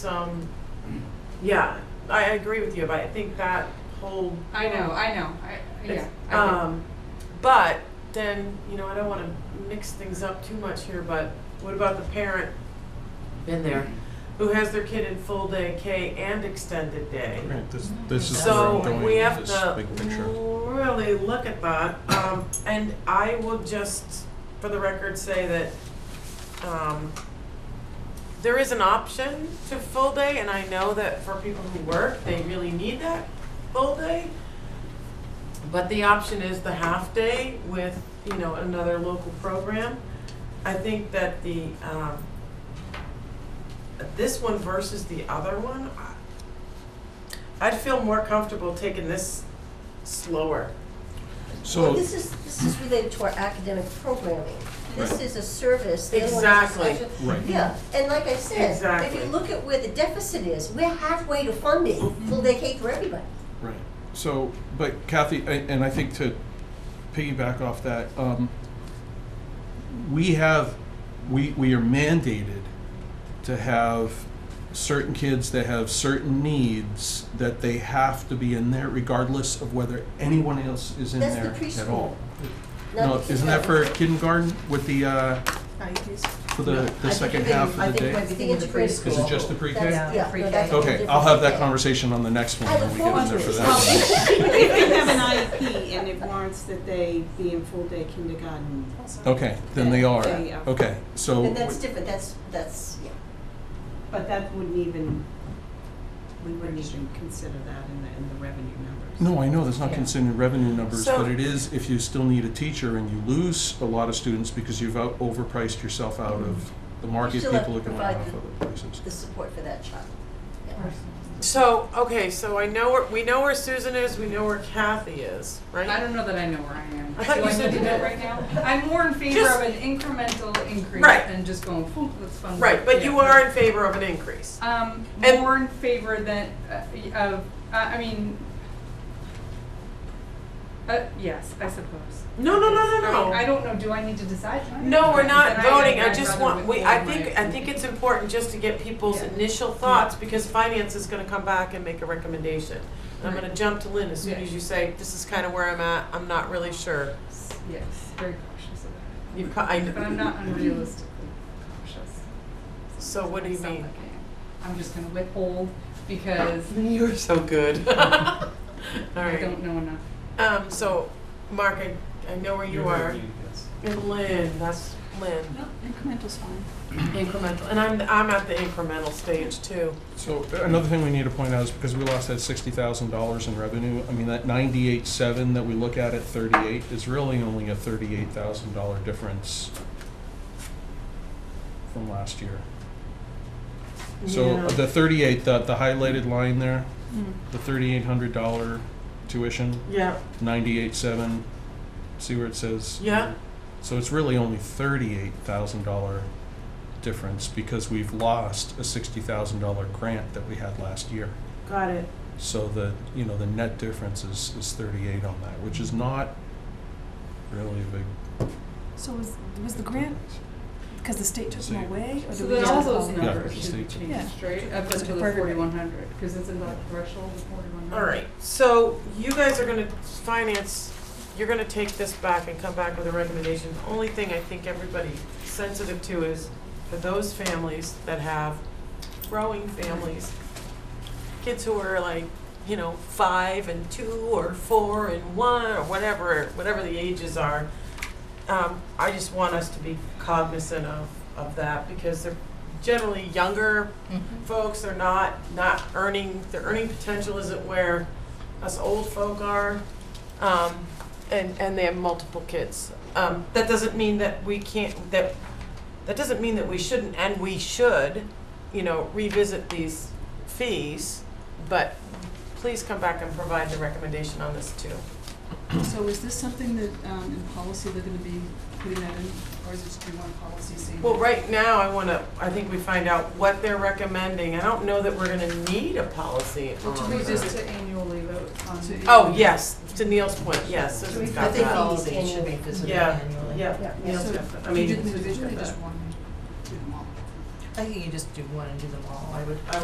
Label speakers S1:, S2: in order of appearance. S1: some, um, yeah, I I agree with you, but I think that whole.
S2: I know, I know, I, yeah.
S1: It's-
S2: I think-
S1: Um, but then, you know, I don't wanna mix things up too much here, but what about the parent, been there, who has their kid in full day K and extended day?
S3: Right, this, this is where I'm
S1: So
S3: going
S1: we
S3: with
S1: have
S3: this
S1: to
S3: big picture.
S1: really look at that, um, and I will just, for the record, say that, um, there is an option to full day, and I know that for people who work, they really need that full day. But the option is the half day with, you know, another local program. I think that the, um, this one versus the other one, I- I'd feel more comfortable taking this slower.
S3: So,
S4: This is, this is related to our academic programming. This
S3: Right.
S4: is a service. they want us to-
S1: Exactly.
S3: Right.
S4: Yeah, and like I said, if
S1: Exactly.
S4: you look at where the deficit is, we're halfway to funding full day K for everybody.
S3: right, so, but Kathy, a- and I think to piggyback off that, um, we have, we, we are mandated to have certain kids that have certain needs that they have to be in there regardless of whether anyone else is in
S4: That's
S3: there
S4: the
S3: at all.
S4: Not
S3: No,
S4: the
S3: isn't that for
S4: kindergarten.
S3: kindergarten with the, uh, for the, the second half of the day?
S5: I think
S4: The
S5: it might be thinking
S4: integrated
S5: of
S4: school.
S5: preschool.
S3: Is it just the pre-K?
S4: That's-
S5: Yeah,
S4: yeah, no,
S5: pre-K.
S4: that's a
S3: Okay,
S4: different
S3: I'll have that
S4: thing.
S3: conversation on the next one
S4: I
S3: when
S4: look
S3: we get in there for
S4: forward to
S3: that.
S4: it.
S6: If they have an IEP and it warrants that they be in full-day kindergarten,
S3: one. Okay, then they are.
S6: Yeah, yeah.
S3: Okay, so,
S4: And that's different, that's, that's, yeah.
S6: but that wouldn't even, we wouldn't even consider that in the, in the revenue numbers.
S3: no, I know that's not considering revenue numbers,
S1: So-
S3: but it is if you still need a teacher and you lose a lot of students because you've out, overpriced yourself out of the market,
S4: still have
S3: people are
S4: to
S3: going
S4: provide
S3: off
S4: the-
S3: other places.
S4: the support for that child. Yeah.
S1: So, okay, so I know where, we know where Susan is, we know where Kathy is, right?
S2: I don't know that I know where I am.
S1: I thought
S2: Do
S1: you said you
S2: need to
S1: did.
S2: right now? I'm more in favor
S1: Just-
S2: of an incremental increase
S1: Right.
S2: than just going, poof, let's fund. it."
S1: Right, but you
S2: Yeah.
S1: are in favor of an increase.
S2: Um,
S1: And-
S2: more in favor than, uh, y- of, I, I mean, uh, yes, I suppose.
S1: No, no, no, no,
S2: I mean, I
S1: no.
S2: don't know, do I need to decide tonight?
S1: No, we're not
S2: Then
S1: voting, I
S2: I'd
S1: just
S2: rather
S1: want, we,
S2: withhold
S1: I
S2: my
S1: think, I think it's important just to get people's
S2: Yeah.
S1: initial thoughts, because finance is gonna come back and make a recommendation. And I'm
S2: Right.
S1: gonna jump to Lynn as soon
S2: Yeah.
S1: as you say, this is kinda where I'm at, I'm not really sure.
S2: Yes, very cautious of that.
S1: You, ca- I,
S2: But I'm not unrealistically cautious.
S1: So what do you
S2: I sound
S1: mean?
S2: like I am. I'm just gonna withhold because
S1: You're so good.
S2: I
S1: Alright.
S2: don't know enough.
S1: Um, so, Mark, I, I know where you are. And Lynn, that's Lynn.
S6: No, incremental's fine.
S1: Incremental, and I'm, I'm at the incremental stage too.
S3: So uh, another thing we need to point out is because we lost that sixty thousand dollars in revenue, I mean, that ninety-eight seven that we look at at thirty-eight is really only a thirty-eight thousand dollar difference from last year. So
S1: Yeah. Hmm.
S3: uh, the thirty-eight, the, the highlighted line there, the thirty-eight hundred dollar tuition,
S1: Yeah,
S3: ninety-eight seven, see where it says?
S1: yeah,
S3: So it's really only thirty-eight thousand dollar difference because we've lost a sixty thousand dollar grant that we had last year.
S1: got it.
S3: So the, you know, the net difference is, is thirty-eight on that, which is not really a big.
S5: So was, was the grant, because the state took them away, or
S2: So
S5: did we
S2: then
S5: just
S2: all
S5: follow?
S2: those numbers
S3: Yeah,
S2: should be
S3: just the-
S2: changed, right, up
S5: Just
S2: until the
S5: for everybody.
S2: forty-one hundred, because it's in the threshold of forty-one hundred.
S1: All right, so you guys are gonna, finance, you're gonna take this back and come back with a recommendation. The only thing I think everybody's sensitive to is for those families that have growing families, kids who are like, you know, five and two or four and one or whatever, whatever the ages are. Um, I just want us to be cognizant of, of that because they're generally younger folks are not, not earning, their earning potential isn't where us old folk are. Um, and, and they have multiple kids. Um, that doesn't mean that we can't, that, that doesn't mean that we shouldn't, and we should, you know, revisit these fees. But please come back and provide the recommendation on this too.
S5: So is this something that, um, in policy, they're gonna be putting that in, or is it just be one policy saying?
S1: Well, right now, I wanna, I think we find out what they're recommending. I don't know that we're gonna need a policy
S2: Well,
S1: on
S2: do we just
S1: that.
S2: to annually vote on?
S5: To-
S1: Oh, yes, to Neil's point, yes, Susan's
S4: I
S1: got
S4: think
S1: that.
S4: all
S7: Policy should be visited
S1: Yeah,
S7: annually.
S1: Yeah,
S4: Yeah.
S1: Neil's
S5: So
S1: got that. I
S5: do
S1: mean,
S5: you do them
S1: Susan's got
S5: individually or
S1: that.
S5: just one, do them all?
S7: I think you just do one and do them all. I would,